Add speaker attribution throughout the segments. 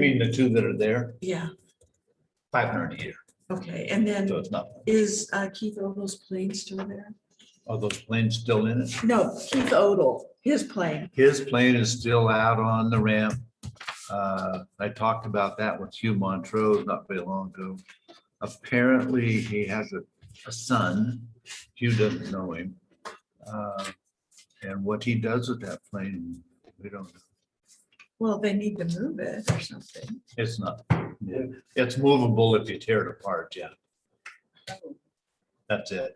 Speaker 1: between the two that are there,
Speaker 2: Yeah,
Speaker 1: five hundred a year,
Speaker 2: okay, and
Speaker 1: so
Speaker 2: then
Speaker 1: it's nothing.
Speaker 2: is uh, Keith Odel's plane still there?
Speaker 1: Are those planes still in it?
Speaker 2: No, Keith Odel, his plane,
Speaker 1: His plane is still out on the ramp. Uh, I talked about that with Hugh Montrose not very long ago. Apparently, he has a, a son. Hugh doesn't know him. Uh, And what he does with that plane, we don't, know.
Speaker 2: well, they need to move it or something.
Speaker 1: it's not, it's movable if you tear it apart, yeah. That's it.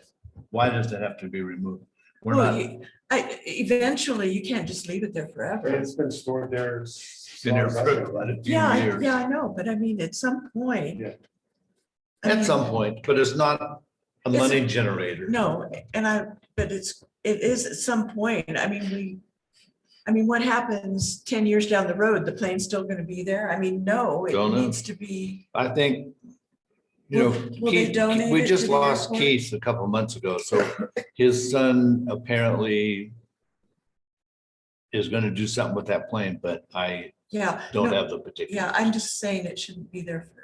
Speaker 1: Why does it have to be removed? We're
Speaker 2: Well,
Speaker 1: not,
Speaker 2: you- I, eventually, you can't just leave it there forever.
Speaker 3: It's been stored there.
Speaker 1: it's
Speaker 3: as
Speaker 1: been there
Speaker 3: long as I
Speaker 1: for
Speaker 3: know.
Speaker 1: about a few
Speaker 2: Yeah, I-
Speaker 1: years.
Speaker 2: yeah, I know, but I mean, at some point.
Speaker 3: Yeah.
Speaker 2: I
Speaker 1: At
Speaker 2: mean,
Speaker 1: some point, but it's not a
Speaker 2: It's-
Speaker 1: money generator.
Speaker 2: No, and I, but it's, it is at some point, I mean, we, I mean, what happens ten years down the road, the plane's still gonna be there? I mean, no, it
Speaker 1: Don't know.
Speaker 2: needs to be,
Speaker 1: I think, you know,
Speaker 2: Will- will they
Speaker 1: Keith,
Speaker 2: donate
Speaker 1: we
Speaker 2: it
Speaker 1: just
Speaker 2: to the
Speaker 1: lost
Speaker 2: airport?
Speaker 1: Keith a couple months ago, so his son apparently is gonna do something with that plane, but I
Speaker 2: yeah.
Speaker 1: don't
Speaker 2: no,
Speaker 1: have the particular.
Speaker 2: Yeah, I'm just saying it shouldn't be there for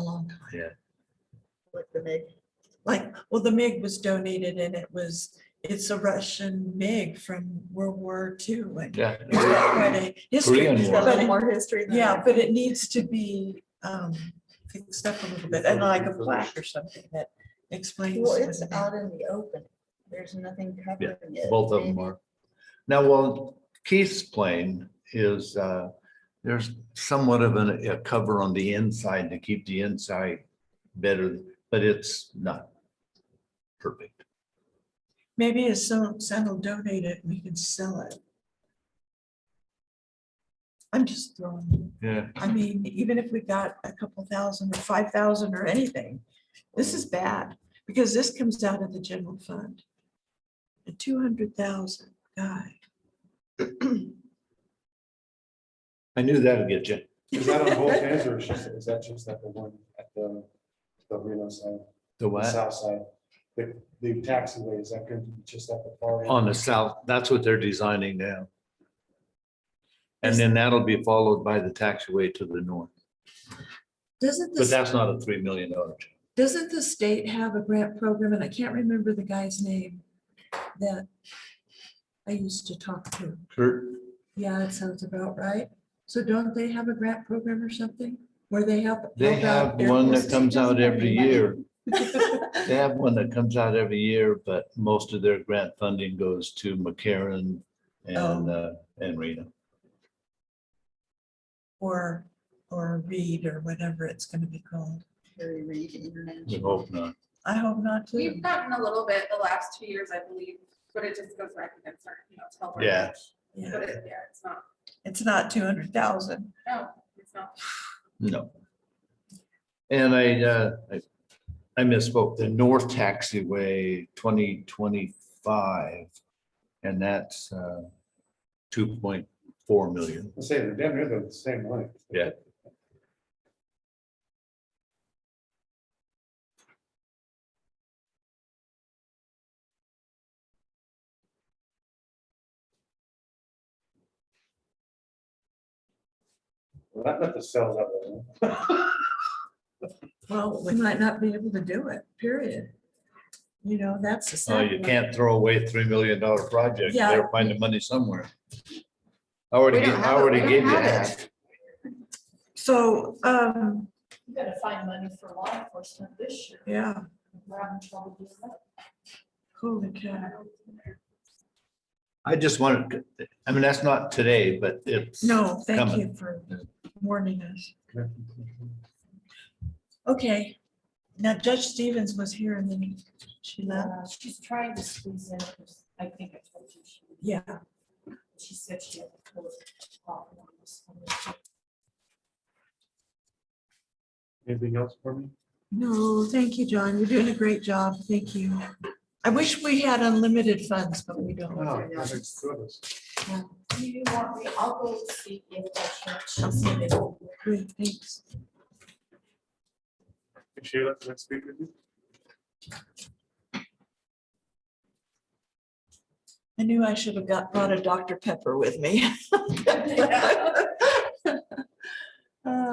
Speaker 2: a long time.
Speaker 4: Like the big,
Speaker 2: Like, well, the MiG was donated and it was, it's a Russian MiG from World War II. and
Speaker 1: Yeah,
Speaker 2: it's got quite a history,
Speaker 1: Korean
Speaker 4: it's
Speaker 1: War.
Speaker 4: got a
Speaker 2: but
Speaker 4: little
Speaker 2: it-
Speaker 4: more history than.
Speaker 2: Yeah, but it needs to be um fixed up a little bit and like a plaque or something that explains.
Speaker 4: Well,
Speaker 2: what
Speaker 4: it's
Speaker 2: it
Speaker 4: out
Speaker 2: is.
Speaker 4: in the open. There's nothing covering it.
Speaker 1: both of them are. Now, well, Keith's plane is, uh, there's somewhat of an- a cover on the inside to keep the inside better, but it's not perfect.
Speaker 2: Maybe if some, some will donate it, we can sell it. I'm just throwing,
Speaker 1: Yeah.
Speaker 2: I mean, even if we got a couple thousand or five thousand or anything, this is bad because this comes out of the general fund. A two hundred thousand guy.
Speaker 1: I knew that'd get you.
Speaker 3: Is that on both ends or is just- is that just at the one at the, the Reno side,
Speaker 1: The
Speaker 3: the
Speaker 1: what?
Speaker 3: south side? The, the taxiway, is that going to be just at the far end?
Speaker 1: On the south, that's what they're designing now. And
Speaker 2: Is-
Speaker 1: then that'll be followed by the taxiway to the north,
Speaker 2: Doesn't
Speaker 1: but
Speaker 2: this,
Speaker 1: that's not a three million dollar. job.
Speaker 2: doesn't the state have a grant program? And I can't remember the guy's name that I used to talk to.
Speaker 1: Kurt,
Speaker 2: Yeah, that sounds about right. So don't they have a grant program or something where they help?
Speaker 1: they
Speaker 2: help out
Speaker 1: have one that
Speaker 2: airports?
Speaker 1: comes out every year. They have one that comes out every year, but most of their grant funding goes to McCarran and,
Speaker 5: Oh.
Speaker 1: uh, and Reno.
Speaker 2: Or, or read or whatever it's gonna be called.
Speaker 4: Harry Reid
Speaker 1: We
Speaker 4: International.
Speaker 1: hope not.
Speaker 2: I hope not to.
Speaker 5: We've gotten a little bit the last two years, I believe, but it just goes back against our, you know, it's helped. our
Speaker 1: Yeah.
Speaker 5: bench.
Speaker 2: Yeah,
Speaker 5: But it, yeah, it's not,
Speaker 2: It's not two hundred thousand.
Speaker 5: no, it's not.
Speaker 1: No. And I, uh, I- I misspoke, the North Taxiway twenty twenty-five, and that's uh, two point four million.
Speaker 3: I'm saying, they're damn near the same length.
Speaker 1: Yeah.
Speaker 3: Well, that let the cells out. there.
Speaker 2: Well, we might not be able to do it, period. You know, that's the.
Speaker 1: Oh,
Speaker 2: sad
Speaker 1: you
Speaker 2: part.
Speaker 1: can't throw away three million dollar project, you
Speaker 2: Yeah.
Speaker 1: better find the money somewhere. I already,
Speaker 5: We don't
Speaker 1: gave- I
Speaker 5: have it, we
Speaker 1: already
Speaker 5: don't
Speaker 1: gave you
Speaker 5: have it.
Speaker 1: half.
Speaker 2: So, um,
Speaker 4: You gotta find money for law enforcement this year.
Speaker 2: yeah,
Speaker 4: We're having trouble doing that.
Speaker 2: holy cow.
Speaker 1: I just wanted, to- I mean, that's not today, but it's.
Speaker 2: No, thank
Speaker 1: Coming.
Speaker 2: you for warning us. Okay, now Judge Stevens was here and then she left.
Speaker 6: Uh, She's trying to squeeze in, because I think I told you, she-
Speaker 2: Yeah,
Speaker 6: she said she had to close off on this one.
Speaker 3: Anything else for me?
Speaker 2: no, thank you, John. You're doing a great job. Thank you. I wish we had unlimited funds, but we don't.
Speaker 3: No, that's good.
Speaker 6: Do you want me, I'll go see if the church, I'll see if they will.
Speaker 2: Great, thanks.
Speaker 3: Sheila, let's speak with you.
Speaker 2: I knew I should have got, brought a Dr. Pepper with me. Uh,